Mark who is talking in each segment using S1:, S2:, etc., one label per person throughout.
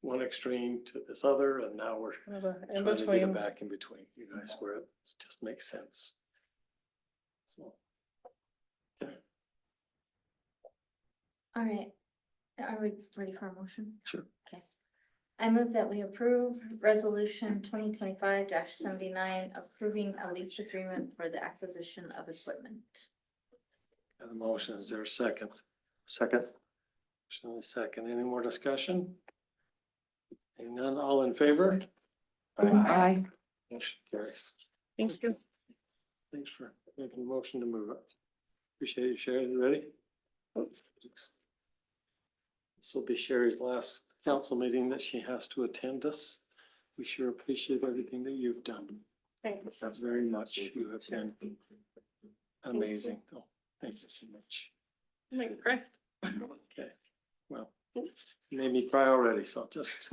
S1: one extreme to this other, and now we're
S2: Well, the- In
S1: trying to get it
S2: between,
S1: back in between, you guys, where it just makes sense. So,
S3: All right, are we ready for a motion?
S1: Sure.
S3: Okay. I move that we approve resolution twenty twenty-five seventy-nine, approving a lease agreement for the acquisition of equipment.
S1: got a motion, is there a second? Second. Motion and a second, any more discussion? Hearing none, all in favor?
S4: Aye.
S1: Motion carries.
S2: thank you.
S1: Thanks for making a motion to move it. Appreciate you, Sherry. You ready? This will be Sherry's last council meeting that she has to attend us. We sure appreciate everything that you've done.
S2: Thanks.
S1: Thanks very much. You have been amazing. Oh, Thank you so much.
S2: Like, great.
S1: Okay, well, you made me cry already, so just.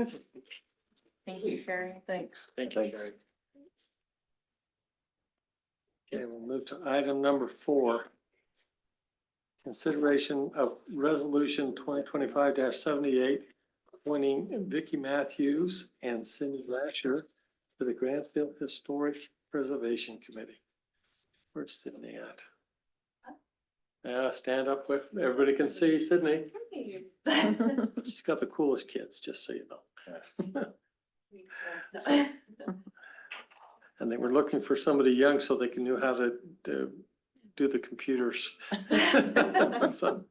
S3: Thank you, Sherry.
S1: Thanks. Thank you, Sherry. Okay, we'll move to item number four. Consideration of resolution twenty twenty-five seventy-eight, appointing Vicky Matthews and Cindy Lasher to the Grantsville Historic Preservation Committee. Where's Sydney at? Yeah, stand up, with- everybody can see Sydney. She's got the coolest kids, just so you know. And they were looking for somebody young so they can know how to, to do the computers. So,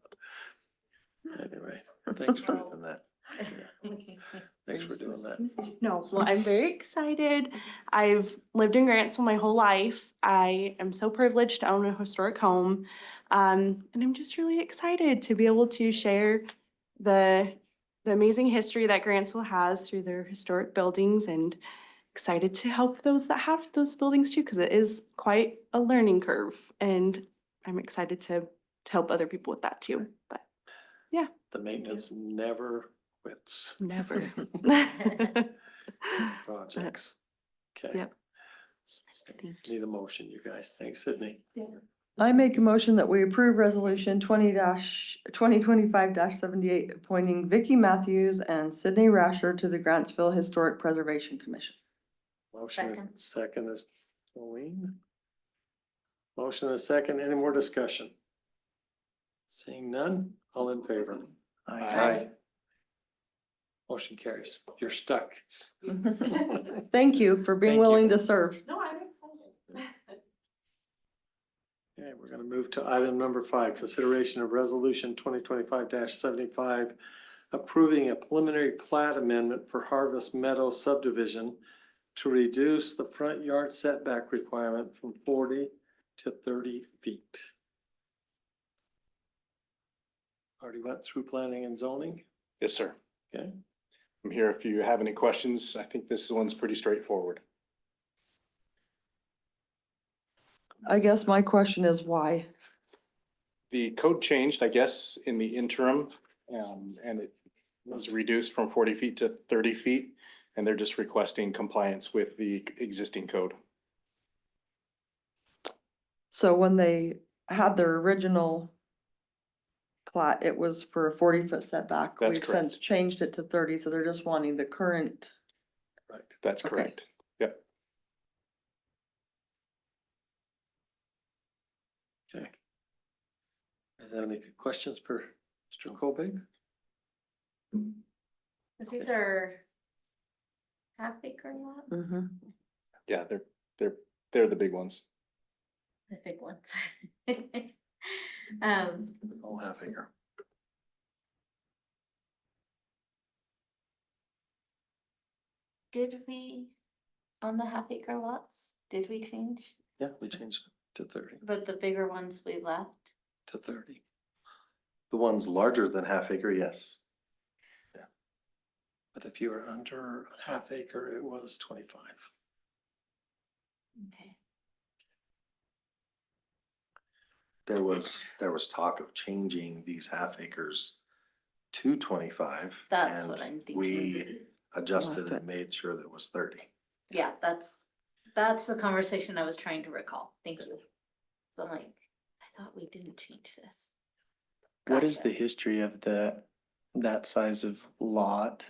S1: Anyway, thanks for doing that. Thanks for doing that.
S5: No, well, I'm very excited. I've lived in Grantsville my whole life. I am so privileged to own a historic home. Um, and I'm just really excited to be able to share the, the amazing history that Grantsville has through their historic buildings and excited to help those that have those buildings too, because it is quite a learning curve. And I'm excited to, to help other people with that too, but
S1: The maintenance never quits.
S5: never.
S1: Projects. Okay.
S5: Yep.
S1: Need a motion, you guys. Thanks, Sydney.
S4: I make a motion that we approve resolution twenty twenty twenty-five seventy-eight, appointing Vicky Matthews and Sydney Rasher to the Grantsville Historic Preservation Commission.
S1: Motion is
S3: Second.
S1: second is Colleen. Motion is second. Any more discussion? Seeing none, all in favor?
S3: Aye.
S1: Motion carries. You're stuck.
S4: Thank you for
S1: Thank
S4: being
S1: you.
S4: willing to serve.
S2: No, I'm excited.
S1: Okay, we're gonna move to item number five, consideration of resolution twenty twenty-five seventy-five. Approving a preliminary plat amendment for Harvest Meadow subdivision. To reduce the front yard setback requirement from forty to thirty feet. Already went through planning and zoning,
S6: Yes, sir.
S1: Okay.
S6: I'm here if you have any questions. I think this one's pretty straightforward.
S4: I guess my question is why?
S6: The code changed, I guess, in the interim, um, and it was reduced from forty feet to thirty feet. And they're just requesting compliance with the existing code.
S4: So when they had their original plat, it was for a forty-foot setback.
S6: That's
S4: We've since
S6: correct.
S4: Changed it to thirty, so they're just wanting the current.
S1: right?
S6: That's
S4: Okay.
S6: correct.
S1: Okay. Is there any questions for Mr. Colbig?
S3: These are half acre lots?
S5: Mm-hmm.
S1: Mm-hmm.
S6: Yeah, they're, they're, they're the big ones.
S3: The big ones. Um,
S1: All half acre.
S3: did we, on the half acre lots, did we change?
S1: Yeah, we changed it to thirty.
S3: But the bigger ones we left?
S1: to thirty. The ones larger than half acre, yes. Yeah. But if you were under half acre, it was twenty-five.
S3: Okay.
S7: there was, there was talk of changing these half acres to twenty-five.
S3: That's what
S7: and
S3: I'm thinking.
S7: We adjusted
S4: Left it.
S7: and made sure that it was thirty.
S3: Yeah, that's, that's the conversation I was trying to recall. Thank you. So I'm like, I thought we didn't change this.
S8: What is
S3: Gotcha.
S8: the history of the, that size of lot